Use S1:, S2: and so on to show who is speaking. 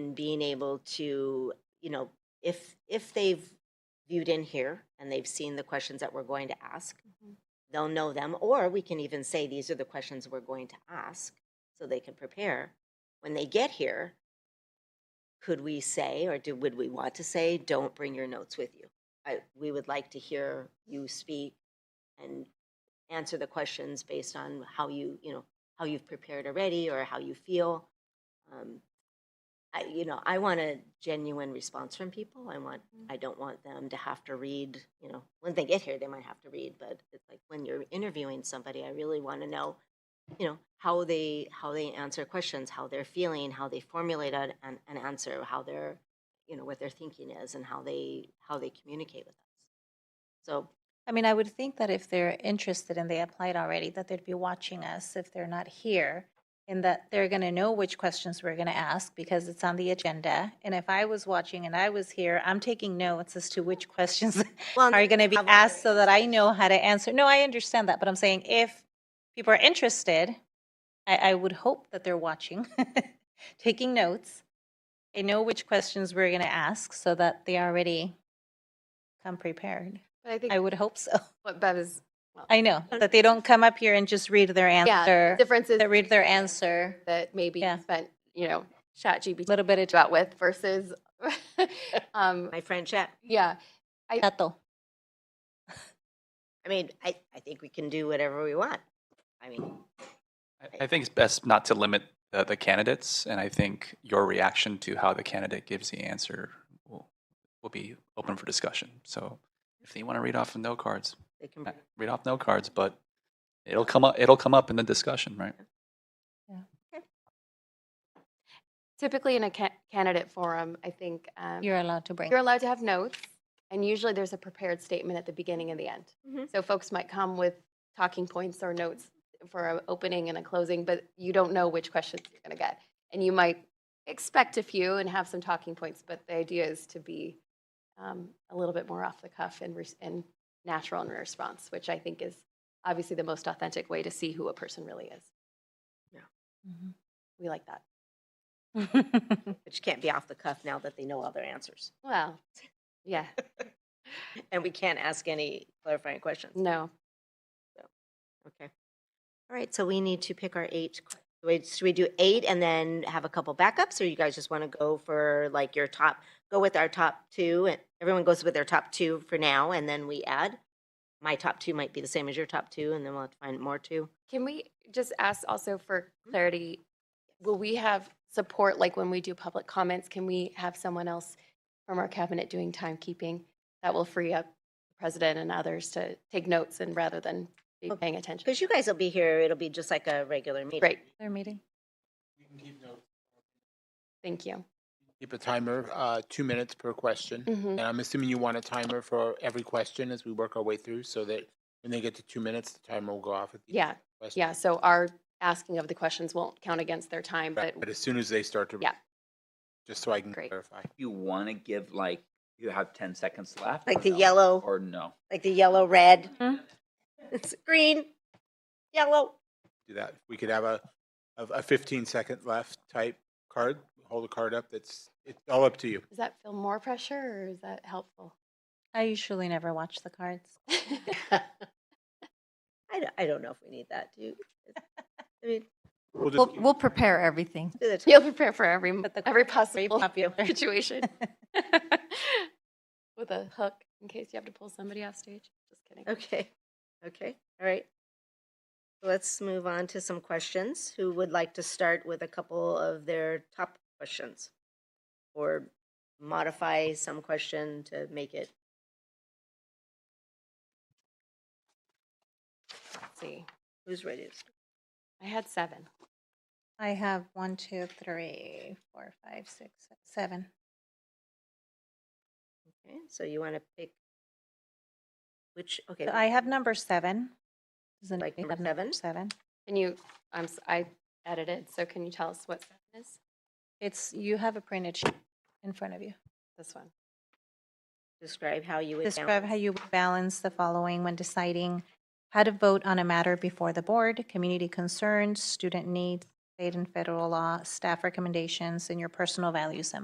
S1: and being able to, you know, if, if they've viewed in here and they've seen the questions that we're going to ask, they'll know them, or we can even say, these are the questions we're going to ask, so they can prepare. When they get here, could we say, or do, would we want to say, don't bring your notes with you? I, we would like to hear you speak and answer the questions based on how you, you know, how you've prepared already or how you feel. Um, I, you know, I want a genuine response from people. I want,
S2: Mm-hmm.
S1: I don't want them to have to read, you know, when they get here, they might have to read, but it's like when you're interviewing somebody, I really want to know, you know, how they, how they answer questions, how they're feeling, how they formulate an, an an answer, how they're, you know, what their thinking is and how they, how they communicate with us. So
S2: I mean, I would think that if they're interested and they applied already, that they'd be watching us if they're not here, and that they're going to know which questions we're going to ask because it's on the agenda. And if I was watching and I was here, I'm taking notes as to which questions
S1: Well,
S2: are going to be
S1: have
S2: asked so
S1: already
S2: that I know how to answer. No, I understand that, but I'm saying if people are interested, I, I would hope that they're watching, taking notes. They know which questions we're going to ask so that they already come prepared.
S3: But I think
S2: I would hope so.
S3: what Bev is, well,
S2: I know that they don't come up here and just read their
S3: yeah, the
S2: answer.
S3: difference is
S2: They read their answer.
S3: that maybe you
S2: Yeah.
S3: spent, you know, chat GPT
S2: Little bit of
S3: about with versus, um,
S1: my friend Chet,
S3: yeah,
S2: chato.
S1: I mean, I, I think we can do whatever we want. I mean,
S4: I- I think it's best not to limit the, the candidates, and I think your reaction to how the candidate gives the answer will, will be open for discussion. So if you want to read off of no cards,
S1: they can.
S4: eh, read off no cards, but it'll come up, it'll come up in the discussion, right?
S3: typically in a ca- candidate forum, I think um,
S2: You're allowed to bring.
S3: you're allowed to have notes, and usually there's a prepared statement at the beginning and the end.
S1: Mhm.
S3: So folks might come with talking points or notes for an opening and a closing, but you don't know which questions you're going to get. And you might expect a few and have some talking points, but the idea is to be um, a little bit more off the cuff and, res- and natural in response, which I think is obviously the most authentic way to see who a person really is. We like that.
S2: Mhm.
S1: But you can't be off the cuff now that they know all their answers.
S3: Well, yeah,
S1: And we can't ask any clarifying questions.
S3: no.
S1: Okay. All right, so we need to pick our eight. qu- Wait, should we do eight and then have a couple backups? Or you guys just want to go for like your top, go with our top two? and Everyone goes with their top two for now and then we add? My top two might be the same as your top two and then we'll have to find more two.
S3: Can we just ask also for
S2: Mm-hmm.
S3: clarity, will we have support, like when we do public comments, can we have someone else from our cabinet doing timekeeping? That will free up the president and others to take notes and rather than be paying attention.
S1: Because you guys will be here, it'll be just like a regular meeting.
S3: Great,
S2: Their meeting.
S3: thank you.
S5: Keep a timer, uh, two minutes per question.
S3: Mhm.
S5: And I'm assuming you want a timer for every question as we work our way through so that when they get to two minutes, the timer will go off at the
S3: Yeah,
S5: question.
S3: yeah, so our asking of the questions won't count against their time, but
S5: But but as soon as they start to.
S3: Yeah.
S5: Just so I can
S3: Great.
S5: clarify.
S6: you want to give like you have 10 seconds left
S1: Like
S6: or
S1: the
S6: no?
S1: yellow-
S6: or no
S1: like the yellow, red.
S2: Hmm?
S1: It's green, yellow.
S5: Do that. We could have a, a a 15 second left type card, hold a card up that's, it's all up to you.
S3: does that feel more pressure or is that helpful?
S2: I usually never watch the cards.
S1: I don't, I don't know if we need that, do you? I mean,
S5: We'll just
S7: We'll,
S5: keep-
S7: we'll prepare everything.
S1: do the top.
S3: You'll prepare for every,
S2: But the
S3: every
S2: cards are very
S3: possible
S2: popular.
S3: situation. With a hook in case you have to pull somebody off stage. Just kidding.
S1: Okay, okay, all right. Let's move on to some questions. Who would like to start with a couple of their top questions? Or modify some question to make it,
S3: Let's see.
S1: who's ready? to start?
S3: I had seven.
S2: I have one, two, three, four, five, six, seven.
S1: Okay, so you want to pick which, okay.
S2: So I have number seven. Does
S1: Like
S2: anybody
S1: number
S2: have number
S1: seven?
S2: Seven.
S3: Can you, I'm, s- I edited, so can you tell us what seven is?
S2: It's, you have a printed sheet in front of you.
S3: This one.
S1: Describe how you would.
S2: Describe how
S1: balance.
S2: you would balance the following when deciding how to vote on a matter before the board, community concerns, student needs, state and federal law, staff recommendations, and your personal values and